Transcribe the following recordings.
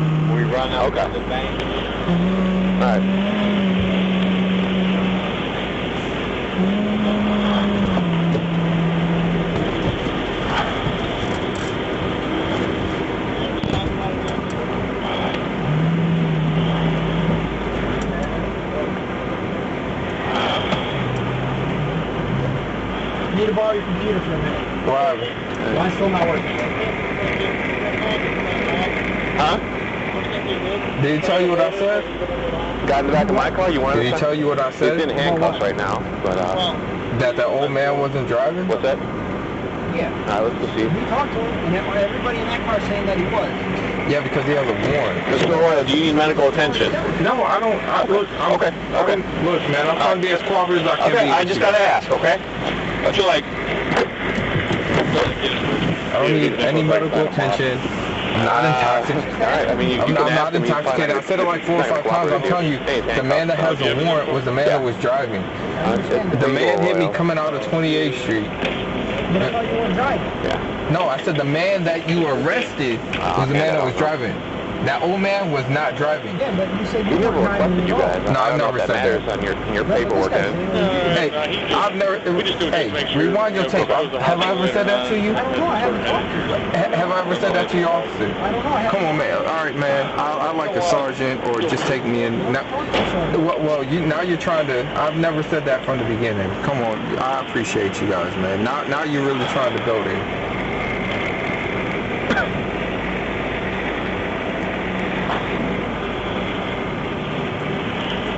No, no. Okay. The bank. Mm-hmm. All right. Need to borrow your computer for a minute. Whatever. Mine's still not working. Huh? Did he tell you what I said? Got in the back of my car. You want Did he to? tell you what I He's in said? handcuffs right now, but uh, That the old man wasn't driving? what's that? Yeah. All right, let's proceed. We talked to him, and that- everybody in that car saying that he was. Yeah, because he has a warrant. Mr. Royal, do you need medical attention? No, I don't. I, look, I'm, Oh, Okay, okay. I'm- Look, man, I'm trying to be as cooperative as I can Okay, be. I with just you. gotta ask. Okay. I feel like I don't need any medical attention. I'm not intoxicated. Uh, All right, I mean, you, I'm you can not, I'm ask not him, he's probably intoxicated. I not said it gonna- like four or he's not five times. I'm gonna telling you, cooperate with the man that has a warrant was the man that was driving. Honestly, The man hit me Royal. coming out of 28th Street. But I thought you weren't driving. Yeah. No, I said the man that you arrested was the Ah, man that was driving. That old man was not driving. Yeah, but you said you You weren't never driving requested at you all. guys. No, I've I don't know never if said that. matters on your, your That's what paperwork. this guy's and- saying. Hey, Uh, I've never. Hey, rewind your tape. Have I ever said that to you? I don't know, I haven't talked to him. Ha- Have I ever said that to your officer? I don't know, I haven't. Come on, man. All right, man. I, I like a sergeant, or just take me in. Now, well, well, you now you're trying to. I've never said that from the beginning. Come on, I appreciate you guys, man. Now, now you're really trying to build it.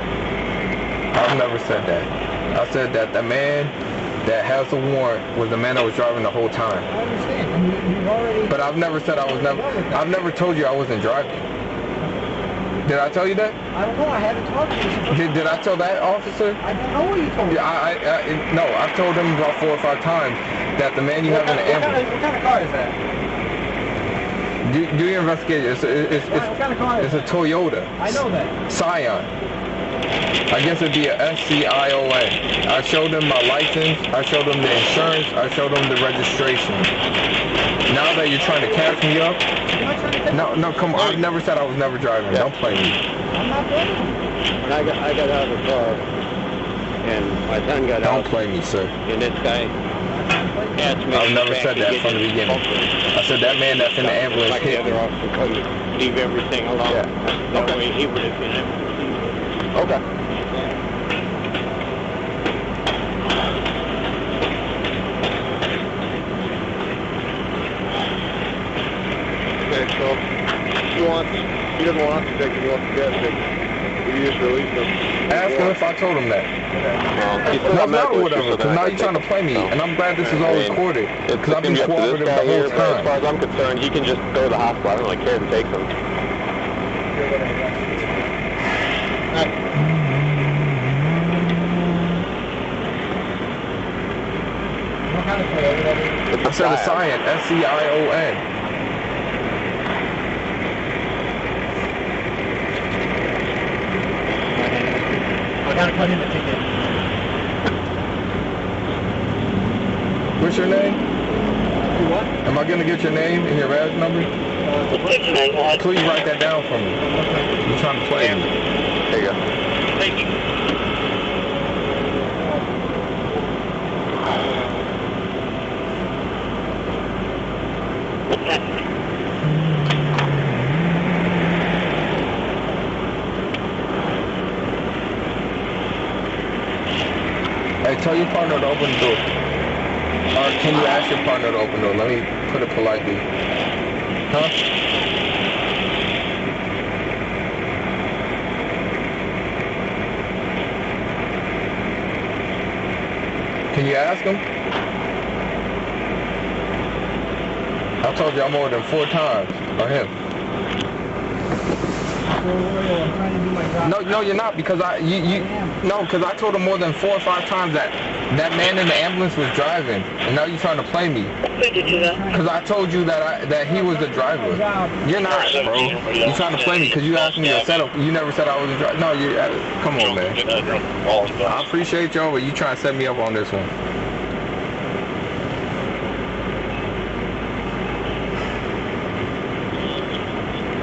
I've never said that. I said that the man that has the warrant was the man that was driving the whole time. I understand, and you, you've already... But I've never said I was never. I've never told you I wasn't driving. Did I tell you that? I don't know, I haven't talked to you. It's the first- Did, did I tell that officer? I don't know what you told me. Yeah, I, I, I no. I've told him about four or five times that the man you What have in kind, what, the kind ambulance. of, what kind of car is that? Do, do your investigation. It's, it's, Why, what kind of car it's, is it's a Toyota I know that. Scion. I guess it'd be a SCIOA. I showed him my license. I showed him the insurance. I showed him the registration. Now that you're trying to catch me up, I'm not trying to take- no, no, come on. I've never said I was never driving. Don't play me. I'm not blaming you. When I got, I got out of the car, and my son got Don't out, play me, sir. and this guy asked me. I've to never back said and that get from the his beginning. bumper. I said that man that's in the ambulance Like the hit me. other officer couldn't leave everything alone. Yeah. That way he would have been able to leave. Okay. Okay, so he wants, he doesn't want us to take him, he wants the gas station. Will you just release him? Ask him if I told him that. Well, he's still No, got no, medical whatever. issues, so Because now I you're trying to think- play me, so. and I'm glad this is I all mean, recorded. It's Because I've been gonna be up to cooperative this the guy whole here, but as far as time. I'm concerned, he can just go to the hospital. I don't really care who takes him. What kind of Toyota that is? It's I said a scion. scion, S-C-I-O-N. I gotta put in a ticket. What's your name? Do what? Am I going to get your name and your badge number? Please write that down for me. You're trying to play me. There you go. Thank Hey, tell your partner to open the door. Or can you ask your partner to open the door? Let me put it politely. Huh? Can you ask him? I told y'all more than four times or him. Well, Royal, I'm trying to do my job. No, no, you're not because I you you no because I told him more than four or five times that that man in the ambulance was driving and now you're trying to play me Who did you that? because I told you that I that he was the driver. You're not, bro. You're trying to play me because you asked me to set up. You never said I was a driver. No, you. uh, Come on, man. I appreciate y'all, but you trying to set me up on this one.